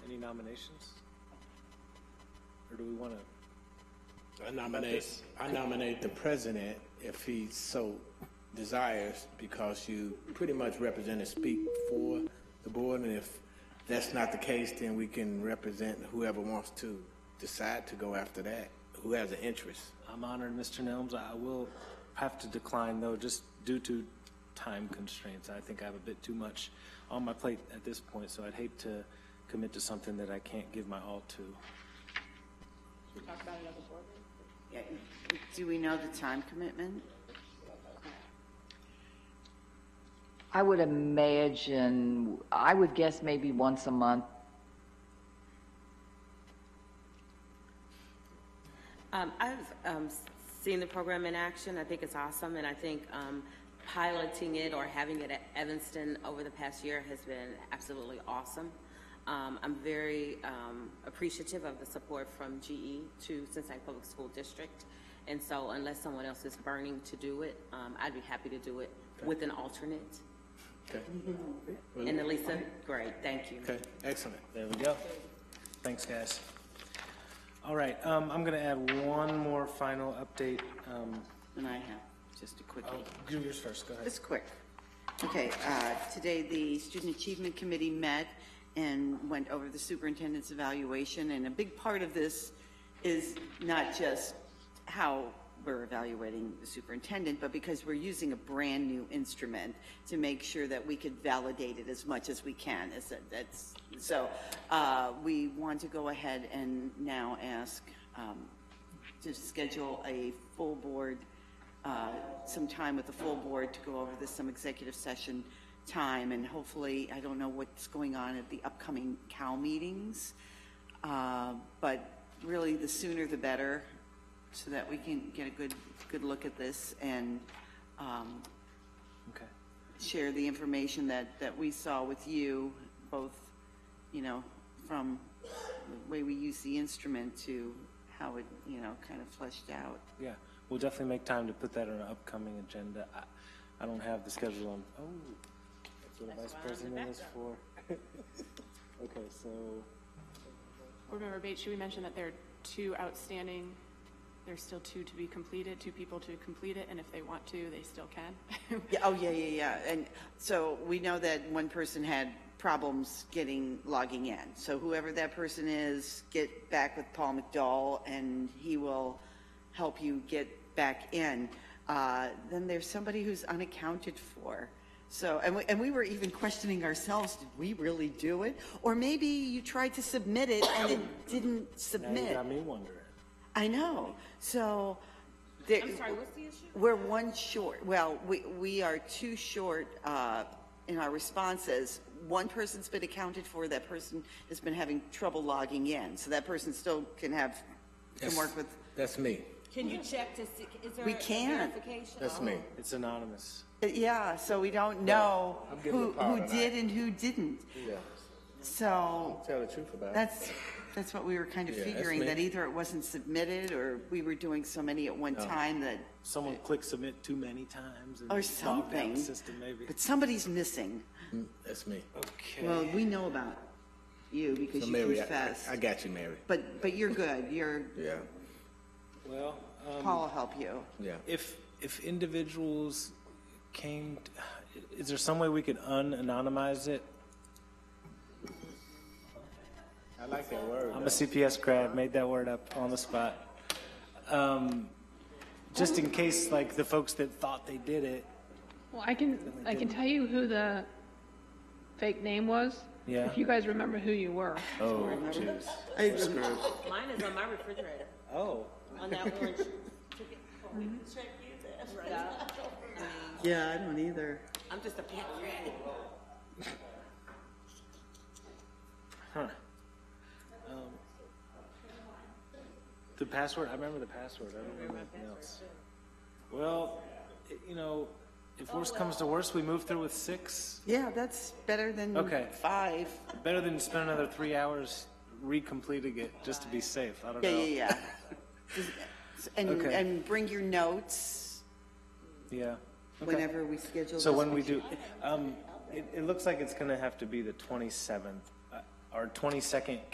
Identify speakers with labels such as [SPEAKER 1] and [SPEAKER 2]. [SPEAKER 1] nominations? Or do we want to?
[SPEAKER 2] I nominate, I nominate the president if he so desires, because you pretty much represent and speak for the board, and if that's not the case, then we can represent whoever wants to decide to go after that, who has an interest.
[SPEAKER 1] I'm honored, Mr. Nelms. I will have to decline, though, just due to time constraints. I think I have a bit too much on my plate at this point, so I'd hate to commit to something that I can't give my all to.
[SPEAKER 3] Yeah, Do we know the time commitment?
[SPEAKER 4] I would imagine, I would guess maybe once a month.
[SPEAKER 5] Um, I've um, s- seen the program in action. I think it's awesome, and I think um, piloting it or having it at Evanston over the past year has been absolutely awesome. Um, I'm very um, appreciative of the support from GE to Cincinnati Public School District, and so unless someone else is burning to do it, um, I'd be happy to do it with an alternate.
[SPEAKER 2] Okay,
[SPEAKER 5] And Elisa, great, thank you.
[SPEAKER 2] okay, excellent.
[SPEAKER 1] There we go. Thanks, guys. All right, um, I'm going to add one more final update. Um,
[SPEAKER 3] And I have just a quick.
[SPEAKER 1] do yours first, go ahead.
[SPEAKER 3] It's quick. Okay, uh, today the Student Achievement Committee met and went over the superintendent's evaluation, and a big part of this is not just how we're evaluating the superintendent, but because we're using a brand-new instrument to make sure that we could validate it as much as we can. Is that- That's, so uh, we want to go ahead and now ask um, to schedule a full board, uh, some time with the full board to go over this, some executive session time, and hopefully, I don't know what's going on at the upcoming COW meetings, uh, but really, the sooner the better, so that we can get a good, good look at this and um,
[SPEAKER 1] Okay.
[SPEAKER 3] share the information that, that we saw with you, both, you know, from the way we use the instrument to how it, you know, kind of fleshed out.
[SPEAKER 1] Yeah, we'll definitely make time to put that on our upcoming agenda. I, I don't have the schedule on, oh, that's what a vice president is for. Okay, so,
[SPEAKER 6] Board Member Bates, should we mention that there are two outstanding, there's still two to be completed, two people to complete it, and if they want to, they still can?
[SPEAKER 3] Yeah, oh, yeah, yeah, yeah. And so we know that one person had problems getting, logging in. So whoever that person is, get back with Paul McDowell and he will help you get back in. Uh, Then there's somebody who's unaccounted for. So, and we, and we were even questioning ourselves, did we really do it? Or maybe you tried to submit it and it didn't
[SPEAKER 1] now you
[SPEAKER 3] submit.
[SPEAKER 1] got me wondering.
[SPEAKER 3] I know. So. there-
[SPEAKER 5] I'm sorry, what's the issue?
[SPEAKER 3] We're one short. Well, we, we are two short uh, in our responses. One person's been accounted for, that person has been having trouble logging in. So that person still can have, can
[SPEAKER 2] Yes.
[SPEAKER 3] work with,
[SPEAKER 2] That's me,
[SPEAKER 5] Can you check to see, is there
[SPEAKER 3] We can't.
[SPEAKER 5] verification?
[SPEAKER 2] that's me.
[SPEAKER 3] Oh.
[SPEAKER 1] It's anonymous.
[SPEAKER 3] yeah, so we don't know
[SPEAKER 2] I'm giving
[SPEAKER 3] who,
[SPEAKER 2] the power
[SPEAKER 3] who
[SPEAKER 2] tonight.
[SPEAKER 3] did and who didn't.
[SPEAKER 2] Yeah,
[SPEAKER 3] So
[SPEAKER 2] tell the truth about it.
[SPEAKER 3] that's, that's what we were kind of
[SPEAKER 2] Yeah, that's
[SPEAKER 3] figuring,
[SPEAKER 2] me.
[SPEAKER 3] that either it wasn't submitted or we were doing so many at one time that,
[SPEAKER 1] Someone clicked submit too many times and
[SPEAKER 3] or
[SPEAKER 1] bogged down
[SPEAKER 3] something.
[SPEAKER 1] the system maybe.
[SPEAKER 3] But somebody's missing.
[SPEAKER 2] That's me.
[SPEAKER 3] Well, we know about you because
[SPEAKER 2] So
[SPEAKER 3] you
[SPEAKER 2] Mary, I-
[SPEAKER 3] confessed.
[SPEAKER 2] I, I got you, Mary.
[SPEAKER 3] But, but you're good, you're,
[SPEAKER 2] Yeah,
[SPEAKER 1] Well, um,
[SPEAKER 3] Paul will help you.
[SPEAKER 2] yeah.
[SPEAKER 1] if, if individuals came, t- is there some way we could un-anonymize it?
[SPEAKER 2] I like that word.
[SPEAKER 1] I'm a CPS grad, made that word up on the spot. Um, Just in case, like, the folks that thought they did it,
[SPEAKER 7] Well, I can, I can tell you who the fake name was.
[SPEAKER 1] Yeah.
[SPEAKER 7] If you guys remember who you were.
[SPEAKER 5] Oh, Mine is on my refrigerator,
[SPEAKER 1] oh,
[SPEAKER 5] on that orange.
[SPEAKER 3] Yeah, I don't either.
[SPEAKER 5] I'm just a pet rat.
[SPEAKER 1] huh. Um, The password, I remember the password, I don't remember anything else. Well, i- you know, if worse comes to worse, we move through with six.
[SPEAKER 3] Yeah, that's better than
[SPEAKER 1] Okay.
[SPEAKER 3] five.
[SPEAKER 1] Better than spend another three hours recompleting it, just to be safe, I don't
[SPEAKER 3] Yeah,
[SPEAKER 1] know.
[SPEAKER 3] yeah, yeah. Just- And,
[SPEAKER 1] Okay.
[SPEAKER 3] and bring your notes
[SPEAKER 1] Yeah. Okay.
[SPEAKER 3] whenever we schedule.
[SPEAKER 1] So
[SPEAKER 3] this.
[SPEAKER 1] when we do, um, it, it looks like it's gonna have to be the twenty-seventh, uh, our twenty-second